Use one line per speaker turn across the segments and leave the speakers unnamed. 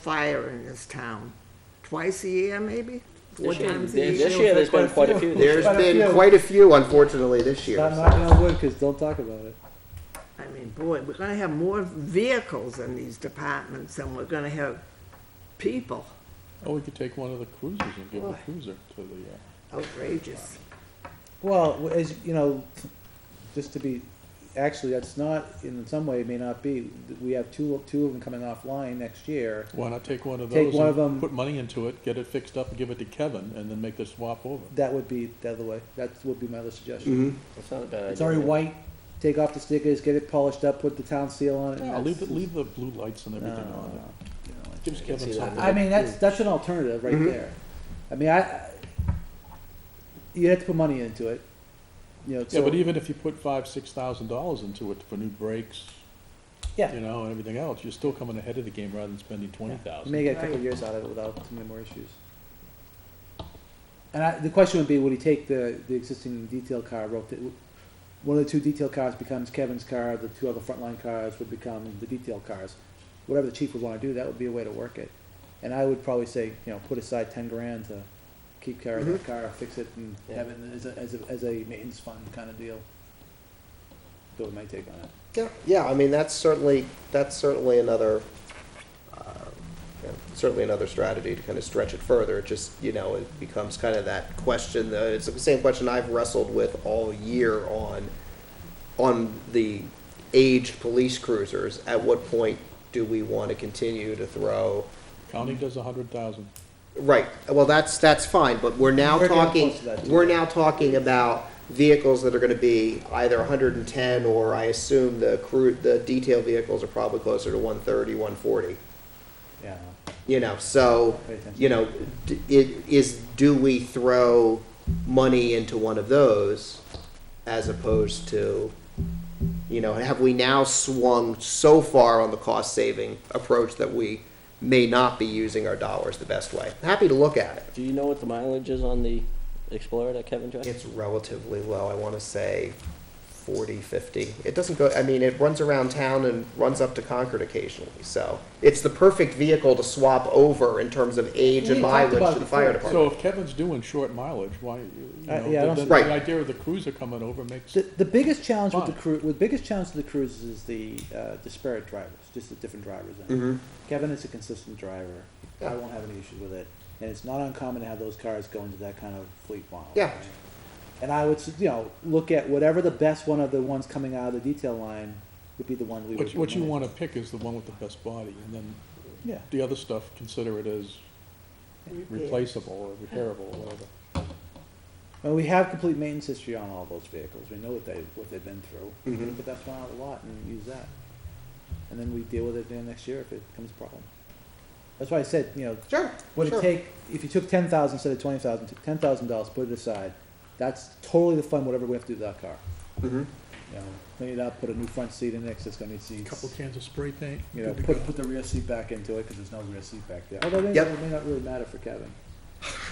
fire in this town? Twice a year, maybe? Four
This year,
times a year?
this year, there's been quite a few. this
There's
year.
Quite a
been
few.
quite a few, unfortunately, this year.
Stop
so.
knocking on wood, because don't talk about it.
I mean, boy, we're gonna have more vehicles in these departments than we're gonna have people.
Or Oh, we could take one of the cruisers and
Oh.
give the cruiser to the, uh,
Outrageous.
Well, w- as, you know, just to be, actually, that's not, in some way, it may not be. We have two, two of them coming offline next year.
why not take one of
Take
those
one of them-
and put money into it, get it fixed up, and give it to Kevin, and then make the swap over?
That would be the other way. That would be my other suggestion.
Mhm.
It's not a bad idea.
It's already white, take off the stickers, get it polished up, put the town seal on it. and
Yeah, leave,
that's-
the- leave the blue lights and
No,
everything
no,
on
no,
it.
you know, it's-
Gives
I can
Kevin
see that.
something.
I mean, that's, that's an alternative right
Mhm.
there. I mean, I, I- you have to put money into it, you know,
Yeah,
so-
but even if you put five, six thousand dollars into it for new brakes,
Yeah.
you know, and everything else, you're still coming ahead of the game rather than spending twenty
You
thousand.
may get a couple
Right.
years out of it without too many more issues. And I, the question would be, would he take the, the existing detail car, rotate, one of the two detail cars becomes Kevin's car, the two other frontline cars would become the detail cars. Whatever the chief would wanna do, that would be a way to work it. And I would probably say, you know, put aside ten grand to keep care of that car, fix it and
Yeah.
have it as a, as a, as a maintenance fund kinda deal. That would be my take on it.
Yeah, yeah, I mean, that's certainly, that's certainly another, uh, yeah, certainly another strategy to kind of stretch it further. It just, you know, it becomes kind of that question, uh, it's the same question I've wrestled with all year on, on the aged police cruisers. At what point do we want to continue to throw?
County does a hundred thousand.
Right, well, that's, that's fine, but we're now
We're getting
talking,
close to that, too.
we're now talking about vehicles that are gonna be either hundred and ten, or I assume the crew, the detail vehicles are probably closer to 130, 140.
Yeah.
You know, so,
Pay attention.
you know, d- it is, do we throw money into one of those as opposed to, you know, have we now swung so far on the cost-saving approach that we may not be using our dollars the best way? Happy to look at it.
Do you know what the mileage is on the Explorer that Kevin drives?
It's relatively low. I want to say 40, 50. It doesn't go, I mean, it runs around town and runs up to Concord occasionally. So it's the perfect vehicle to swap over in terms of age
We
and
talked about
mileage
it
to the fire
before.
So
department.
if Kevin's doing short mileage, why, you
Uh, yeah,
know,
I don't
then- then
see-
Right.
the idea of the cruiser coming over makes,
The, the biggest challenge with the
Fine.
crew, the biggest challenge to the cruises is the uh, disparate drivers, just the different drivers. In it.
Mhm.
Kevin is a consistent driver. I
Yeah.
won't have any issue with it, and it's not uncommon to have those cars go into that kind of fleet model.
Yeah.
right? And I would, s- you know, look at whatever the best one of the ones coming out of the detail line would be the one we
what,
would.
what you
recommend.
wanna pick is the one with the best body, and then
Yeah.
the other stuff, consider it as replaceable or repairable or whatever.
Well, we have complete maintenance history on all those vehicles. We know what they what they've been through.
Mhm.
But that's one out of the lot and use that, and then we deal with it then next year if it becomes a problem. That's why I said, you know,
Sure,
Would it
sure.
take, if you took ten thousand instead of twenty thousand, took ten thousand dollars, put it aside, that's totally the fund, whatever we have to do to that car. Mm-hmm.
Mhm.
You know, clean it up, put a new front seat in next, it's gonna need seats.
Couple cans of spray paint.
You know,
good to
put,
go.
put the rear seat back into it, cause there's no rear seat back there. Although it may,
Yep.
it may not really matter for Kevin.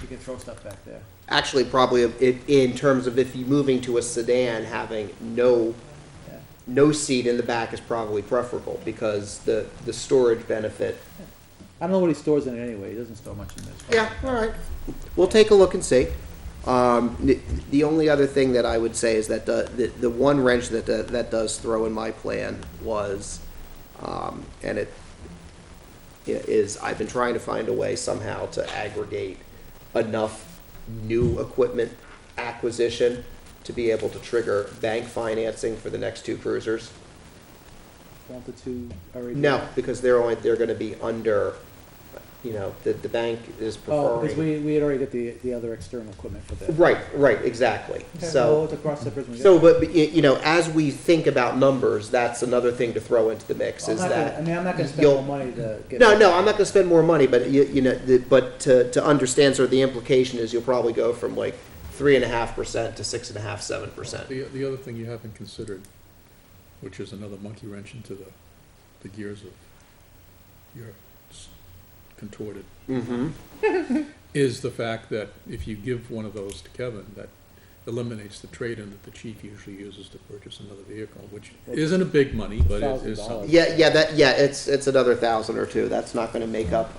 You can throw stuff back there.
Actually, probably it, in terms of if you're moving to a sedan, having no,
Yeah.
no seat in the back is probably preferable because the, the storage benefit.
I don't know what he stores in it anyway. He doesn't store much in this.
Yeah, all right. We'll take a look and see. Um, the- the only other thing that I would say is that the, the, the one wrench that, that, that does throw in my plan was, um, and it i- is, I've been trying to find a way somehow to aggregate enough new equipment acquisition to be able to trigger bank financing for the next two cruisers.
Want the two already?
No, because they're only, they're gonna be under, you know, the, the bank is
Oh, cause
preferring.
we, we had already got the, the other external equipment for that.
Right, right, exactly.
Okay,
So.
well, to cross that bridge when we get
So,
there.
but, but, y- you know, as we think about numbers, that's another thing to throw into the mix
I'm
is
not gonna- I
that.
mean, I'm not gonna spend
you'll-
more money to get.
No, no, I'm not gonna spend more money, but you, you know, the, but to, to understand sort of the implication is you'll probably go from like three and a half percent to six and a half, seven percent.
The, the other thing you haven't considered, which is another monkey wrench into the, the gears of your s- contorted,
Mm-hmm.
is the fact that if you give one of those to Kevin, that eliminates the trade-in that the chief usually uses to purchase another vehicle, which isn't a big money, but it is
$1,000.
something.
Yeah, yeah, that, yeah, it's, it's another thousand or two. That's not gonna make up